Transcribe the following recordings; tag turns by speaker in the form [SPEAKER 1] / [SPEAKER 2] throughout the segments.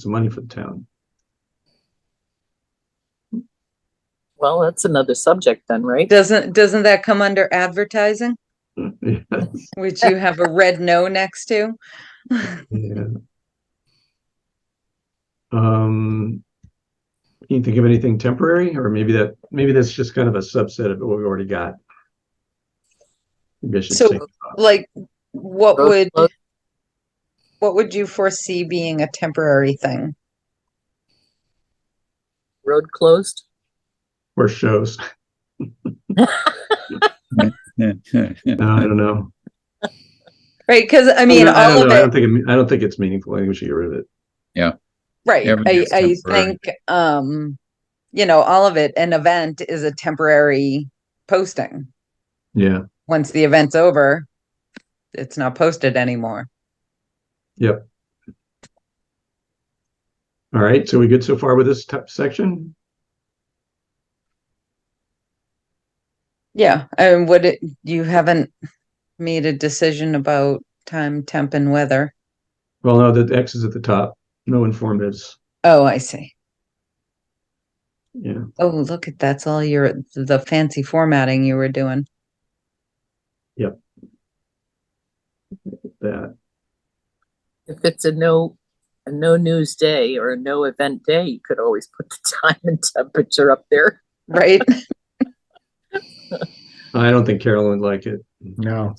[SPEAKER 1] some money for the town.
[SPEAKER 2] Well, that's another subject then, right?
[SPEAKER 3] Doesn't, doesn't that come under advertising,
[SPEAKER 1] Yeah,
[SPEAKER 3] which you have a red no next to?
[SPEAKER 1] yeah. Um, can you think of anything temporary, or maybe that, maybe that's just kind of a subset of what we already got? Maybe I should
[SPEAKER 3] So,
[SPEAKER 1] say,
[SPEAKER 3] Like, what
[SPEAKER 2] Those-
[SPEAKER 3] would,
[SPEAKER 2] those-
[SPEAKER 3] what would you foresee being a temporary thing?
[SPEAKER 2] Road closed?
[SPEAKER 1] or shows, No, I don't know.
[SPEAKER 3] Right, because I mean,
[SPEAKER 1] I don't
[SPEAKER 3] all of
[SPEAKER 1] know. I don't
[SPEAKER 3] it,
[SPEAKER 1] think, it- I don't think it's meaningful, I think we should get rid of it.
[SPEAKER 3] right, I,
[SPEAKER 4] Everything
[SPEAKER 3] I
[SPEAKER 4] is temporary.
[SPEAKER 3] think, um, you know, all of it, an event is a temporary posting.
[SPEAKER 1] Yeah,
[SPEAKER 3] Once the event's over, it's not posted anymore.
[SPEAKER 1] all right, so we good so far with this top section?
[SPEAKER 3] Yeah, and would it, you haven't made a decision about time, temp and weather?
[SPEAKER 1] Well, no, the X is at the top, no informatives,
[SPEAKER 3] Oh, I see.
[SPEAKER 1] yeah,
[SPEAKER 3] Oh, look at that's all your the fancy formatting you were doing.
[SPEAKER 1] that,
[SPEAKER 2] If it's a no, a no news day or a no event day, you could always put the time and temperature up there.
[SPEAKER 3] Right?
[SPEAKER 1] I don't think Carolyn would like it.
[SPEAKER 5] No,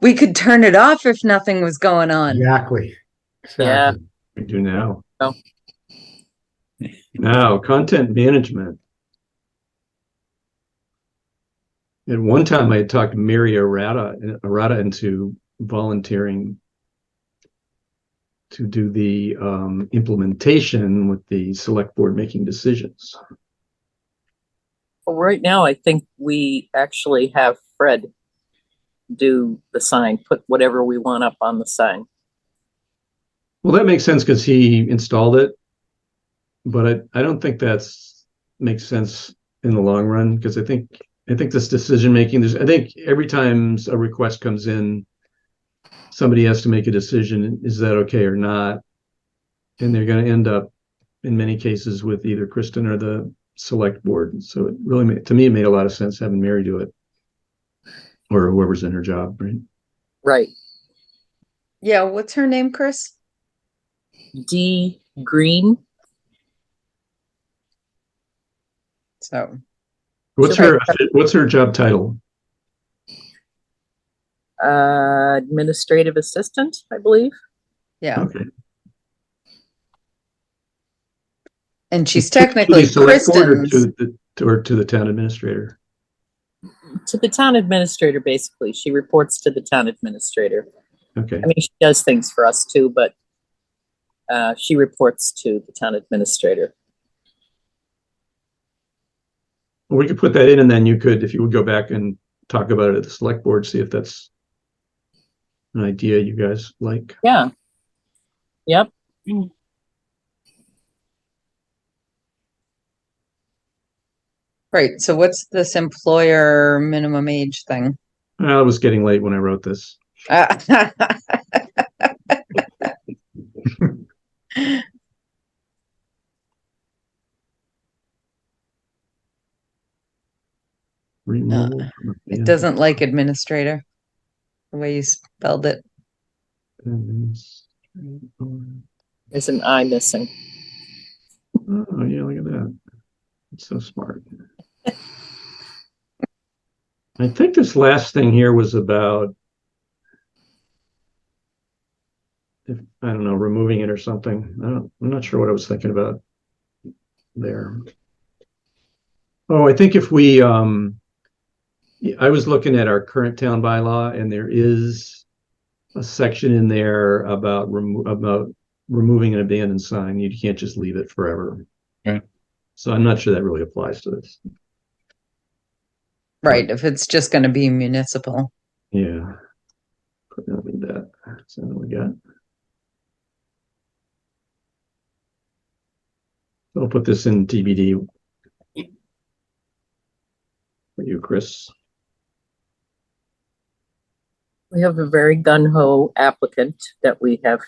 [SPEAKER 3] we could turn it off if nothing was going on.
[SPEAKER 5] exactly.
[SPEAKER 2] Yeah.
[SPEAKER 5] Exactly.
[SPEAKER 1] We do now.
[SPEAKER 2] Oh.
[SPEAKER 1] Now, content management. At one time, I had talked Mary Arata, Arata into volunteering to do the um, implementation with the select board making decisions.
[SPEAKER 2] Well, right now, I think we actually have Fred do the sign, put whatever we want up on the sign.
[SPEAKER 1] Well, that makes sense because he installed it, but I, I don't think that's makes sense in the long run because I think I think this decision making there's I think every time a request comes in, somebody has to make a decision: is that okay or not? And they're going to end up in many cases with either Kristen or the select board. So it really made, to me it made a lot of sense having Mary do it, or whoever's in her job, right?
[SPEAKER 2] Right.
[SPEAKER 3] Yeah, what's her name, Chris?
[SPEAKER 2] D Green,
[SPEAKER 3] So
[SPEAKER 1] What's her What's her job title?
[SPEAKER 2] uh, administrative assistant, I believe.
[SPEAKER 3] yeah.
[SPEAKER 1] Okay.
[SPEAKER 3] And she's
[SPEAKER 1] To- to the
[SPEAKER 3] technically
[SPEAKER 1] select board or
[SPEAKER 3] Kristen's.
[SPEAKER 1] To the, to- or to the town administrator.
[SPEAKER 2] To the town administrator, basically. She reports to the town administrator.
[SPEAKER 1] Okay,
[SPEAKER 2] I mean, she does things for us too, but uh, she reports to the town administrator.
[SPEAKER 1] Well, we could put that in and then you could, if you would go back and talk about it at the select board, see if that's an idea you guys like.
[SPEAKER 2] Yeah. Yep.
[SPEAKER 3] Right. So what's this employer minimum age thing?
[SPEAKER 1] I was getting late when I wrote this.
[SPEAKER 3] Uh,
[SPEAKER 1] Removal. Yeah.
[SPEAKER 3] Uh, it doesn't like administrator. The way you spelled it.
[SPEAKER 1] Oh,
[SPEAKER 2] There's an I missing.
[SPEAKER 1] Oh, yeah, look at that. It's so smart. I think this last thing here was about if, I don't know, removing it or something. I don't, I'm not sure what I was thinking about there. Oh, I think if we, um, yeah, I was looking at our current town bylaw and there is a section in there about remo- about removing an abandoned sign. You can't just leave it forever.
[SPEAKER 4] Right.
[SPEAKER 1] So I'm not sure that really applies to this.
[SPEAKER 3] Right. If it's just gonna be municipal.
[SPEAKER 1] Yeah. Probably not need that. So what we got. I'll put this in TBD. For you, Chris.
[SPEAKER 2] We have a very gun ho applicant that we have